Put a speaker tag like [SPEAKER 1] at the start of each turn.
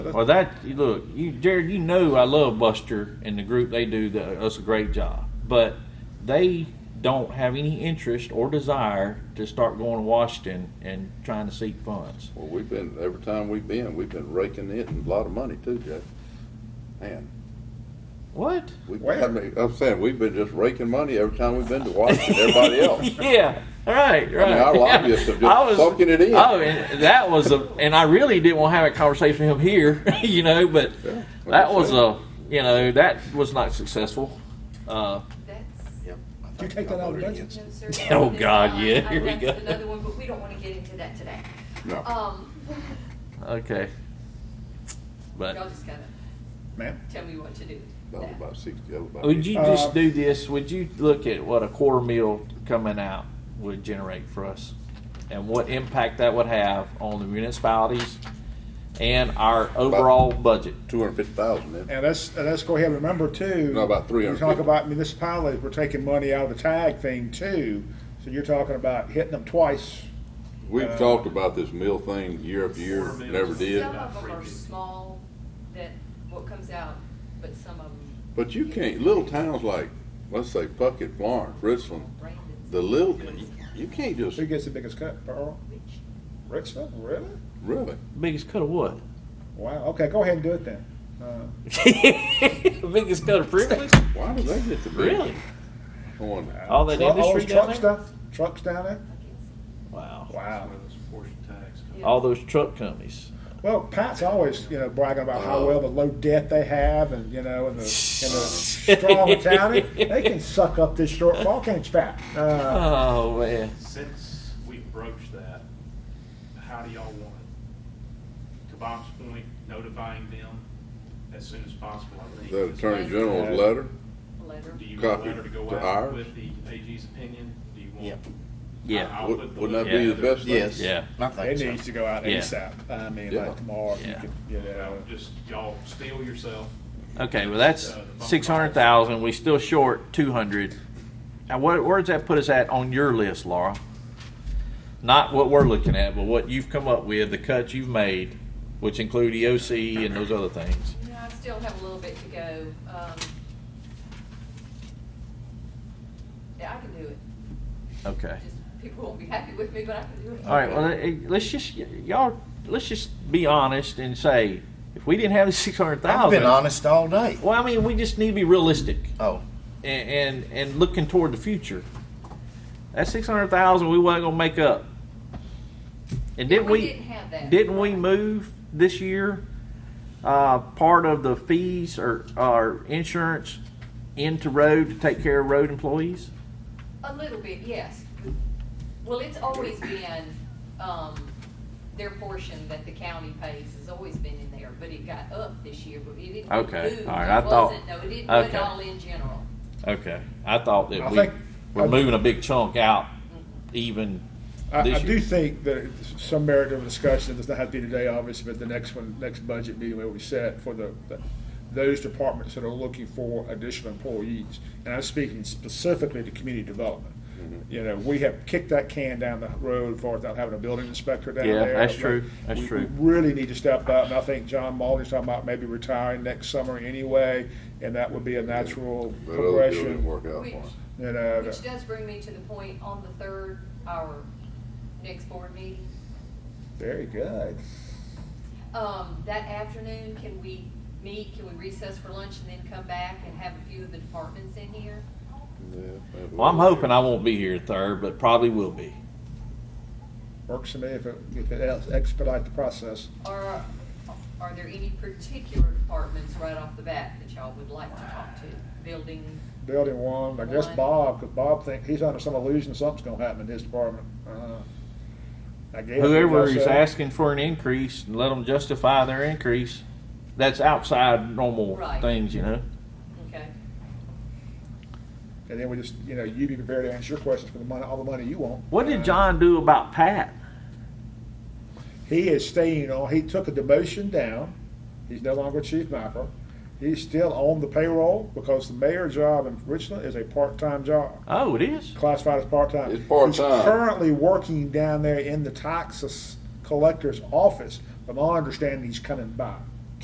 [SPEAKER 1] Well, that you look, you Jared, you know I love Buster and the group. They do the, us a great job, but they don't have any interest or desire to start going to Washington and trying to seek funds.
[SPEAKER 2] Well, we've been, every time we've been, we've been raking in a lot of money too, Jeff. Man,
[SPEAKER 1] What?
[SPEAKER 2] we, I
[SPEAKER 3] Where?
[SPEAKER 2] mean, I'm saying, we've been just raking money every time we've been to Washington, everybody else.
[SPEAKER 1] yeah. Right, right.
[SPEAKER 2] our
[SPEAKER 1] yeah.
[SPEAKER 2] lobbyists have just
[SPEAKER 1] I was-
[SPEAKER 2] soaking it in.
[SPEAKER 1] Oh, and that was a, and I really didn't want to have a conversation with him here, you know. But
[SPEAKER 2] Yeah, what
[SPEAKER 1] that
[SPEAKER 2] I'm
[SPEAKER 1] was
[SPEAKER 2] saying.
[SPEAKER 1] a, you know, that was not successful. Uh,
[SPEAKER 4] That's,
[SPEAKER 5] Yep. I
[SPEAKER 3] you
[SPEAKER 5] think
[SPEAKER 3] take
[SPEAKER 5] I
[SPEAKER 3] that out of
[SPEAKER 5] voted
[SPEAKER 3] budget?
[SPEAKER 5] against
[SPEAKER 4] no,
[SPEAKER 5] it.
[SPEAKER 4] sir.
[SPEAKER 1] Oh,
[SPEAKER 4] this
[SPEAKER 1] God,
[SPEAKER 4] time,
[SPEAKER 1] yeah,
[SPEAKER 4] I-
[SPEAKER 1] here we go.
[SPEAKER 4] That's another one, but we don't want to get into that today.
[SPEAKER 2] No.
[SPEAKER 4] Um,
[SPEAKER 1] okay, but
[SPEAKER 4] y'all just gotta
[SPEAKER 3] Ma'am?
[SPEAKER 4] tell me what to do.
[SPEAKER 2] That was about sixty, that was about.
[SPEAKER 1] Would Oh, you
[SPEAKER 3] Uh,
[SPEAKER 1] just do this? Would you look at what a quarter meal coming out would generate for us and what impact that would have on the municipalities and our overall budget?
[SPEAKER 2] Two hundred and fifty thousand then.
[SPEAKER 3] And let's, and let's go ahead and remember too.
[SPEAKER 2] No, about
[SPEAKER 3] You talk
[SPEAKER 2] 350.
[SPEAKER 3] about municipalities, we're taking money out of the tag thing too. So you're talking about hitting them twice.
[SPEAKER 2] We've talked about this meal thing year after year,
[SPEAKER 5] Quarter meals.
[SPEAKER 2] never did.
[SPEAKER 4] Some of them are small, that, what comes out, but some of them,
[SPEAKER 2] But you can't, little towns like, let's say Puckett, Florence, Richland,
[SPEAKER 4] Brandon's,
[SPEAKER 2] the little, you can't just,
[SPEAKER 3] Who gets the biggest cut, Pearl?
[SPEAKER 4] which,
[SPEAKER 3] Richland, really?
[SPEAKER 2] really.
[SPEAKER 1] Biggest cut of what?
[SPEAKER 3] Wow, okay, go ahead and do it then. Uh,
[SPEAKER 1] Biggest cut of privilege?
[SPEAKER 2] Why do they get the big?
[SPEAKER 1] Really?
[SPEAKER 2] On,
[SPEAKER 1] All that
[SPEAKER 3] tru-
[SPEAKER 1] industry
[SPEAKER 3] those
[SPEAKER 1] down
[SPEAKER 3] truck
[SPEAKER 1] there?
[SPEAKER 3] stuff- Trucks down there?
[SPEAKER 4] I can't see.
[SPEAKER 1] Wow.
[SPEAKER 3] Wow.
[SPEAKER 5] Well, it's portion tax.
[SPEAKER 4] Yeah.
[SPEAKER 1] All those truck companies.
[SPEAKER 3] Well, Pat's always, you know, bragging about how well the low debt they have and, you know, and the, and the strong county. They can suck up this shortfall, can't you, Pat? Uh,
[SPEAKER 1] Oh, man.
[SPEAKER 5] Since we broached that, how do y'all want it? To Bob's point, notifying them as soon as possible, I think.
[SPEAKER 2] the
[SPEAKER 5] is-
[SPEAKER 2] Attorney General's letter,
[SPEAKER 4] a letter.
[SPEAKER 5] Do you want a
[SPEAKER 2] Copy
[SPEAKER 5] letter to go
[SPEAKER 2] to
[SPEAKER 5] out
[SPEAKER 2] ours?
[SPEAKER 5] with the AG's opinion? Do you want?
[SPEAKER 1] Yep.
[SPEAKER 5] I-
[SPEAKER 1] Yeah.
[SPEAKER 5] I'll
[SPEAKER 2] Would-
[SPEAKER 5] put the
[SPEAKER 2] wouldn't that
[SPEAKER 1] be
[SPEAKER 2] the
[SPEAKER 5] letter
[SPEAKER 2] best thing?
[SPEAKER 5] together.
[SPEAKER 2] Yes.
[SPEAKER 1] Yeah.
[SPEAKER 5] Now, I
[SPEAKER 3] It needs to go out
[SPEAKER 1] Yeah.
[SPEAKER 3] ASAP. I mean,
[SPEAKER 2] Yeah.
[SPEAKER 3] like tomorrow, if you
[SPEAKER 1] Yeah.
[SPEAKER 3] could, you know.
[SPEAKER 5] Just y'all steel yourself.
[SPEAKER 1] Okay, well, that's six hundred thousand, we still short two hundred. Now, what, where does that put us at on your list, Laura? Not what we're looking at, but what you've come up with, the cuts you've made, which include EOC and those other things.
[SPEAKER 4] No, I still have a little bit to go. Um, Yeah, I can do it.
[SPEAKER 1] Okay.
[SPEAKER 4] Just people won't be happy with me, but I can do it.
[SPEAKER 1] All right, well, eh, let's just, y'all, let's just be honest and say, if we didn't have the six hundred
[SPEAKER 5] I've
[SPEAKER 1] thousand.
[SPEAKER 5] been honest all day.
[SPEAKER 1] Well, I mean, we just need to be realistic
[SPEAKER 5] Oh.
[SPEAKER 1] and, and, and looking toward the future. That six hundred thousand, we wasn't gonna make up. And didn't
[SPEAKER 4] We
[SPEAKER 1] we?
[SPEAKER 4] didn't have that.
[SPEAKER 1] Didn't we move this year, uh, part of the fees or, or insurance into road to take care of road employees?
[SPEAKER 4] A little bit, yes. Well, it's always been, um, their portion that the county pays has always been in there, but it got up this year, but it didn't. get
[SPEAKER 1] Okay,
[SPEAKER 4] moved.
[SPEAKER 1] all right,
[SPEAKER 4] It
[SPEAKER 1] I thought-
[SPEAKER 4] wasn't, No, it didn't put it
[SPEAKER 1] okay.
[SPEAKER 4] all in general.
[SPEAKER 1] Okay, I thought
[SPEAKER 3] I
[SPEAKER 1] that
[SPEAKER 3] think-
[SPEAKER 1] we were
[SPEAKER 3] I-
[SPEAKER 1] moving a big chunk out even
[SPEAKER 3] I, I
[SPEAKER 1] this
[SPEAKER 3] do
[SPEAKER 1] year.
[SPEAKER 3] think that it's some merit of a discussion, it does not have to be today, obviously, but the next one, next budget meeting will be set for the, the- those departments that are looking for additional employees. And I'm speaking specifically to community development.
[SPEAKER 1] Mm-hmm.
[SPEAKER 3] You know, we have kicked that can down the road for not having a building inspector down
[SPEAKER 1] Yeah,
[SPEAKER 3] there.
[SPEAKER 1] that's true. That's
[SPEAKER 3] We-
[SPEAKER 1] true.
[SPEAKER 3] We really need to step up, and I think John Maldy's talking about maybe retiring next summer anyway, and that would be a natural
[SPEAKER 2] that other deal didn't
[SPEAKER 3] progression.
[SPEAKER 2] work out
[SPEAKER 4] Which-
[SPEAKER 2] for us.
[SPEAKER 3] You know,
[SPEAKER 4] Which does bring me to the point on the third, our next board meeting.
[SPEAKER 3] very good.
[SPEAKER 4] Um, that afternoon, can we meet, can we recess for lunch and then come back and have a few of the departments in here?
[SPEAKER 2] Yeah, that
[SPEAKER 1] Well, I'm
[SPEAKER 2] was-
[SPEAKER 1] hoping I won't be here third, but probably will be.
[SPEAKER 3] Works for me if it, if it expedite the process.
[SPEAKER 4] Or are there any particular departments right off the bat that y'all would like to talk to? Building,
[SPEAKER 3] Building one, I guess
[SPEAKER 4] One.
[SPEAKER 3] Bob, because Bob think he's under some illusion something's gonna happen in his department. Uh, I guess.
[SPEAKER 1] Whoever
[SPEAKER 3] I
[SPEAKER 1] is
[SPEAKER 3] guess, uh,
[SPEAKER 1] asking for an increase, let them justify their increase. That's outside normal
[SPEAKER 4] Right.
[SPEAKER 1] things, you know?
[SPEAKER 4] okay?
[SPEAKER 3] And then we just, you know, you be prepared to answer your questions for the money, all the money you want.
[SPEAKER 1] What did
[SPEAKER 3] Uh,
[SPEAKER 1] John do about Pat?
[SPEAKER 3] He is staying on, he took a demotion down. He's no longer chief mapper. He's still on the payroll because the mayor job in Richland is a part-time job.
[SPEAKER 1] Oh, it is?
[SPEAKER 3] classified as part-time.
[SPEAKER 2] It's part-time.
[SPEAKER 3] He's currently working down there in the taxes collector's office, but my understanding he's coming back.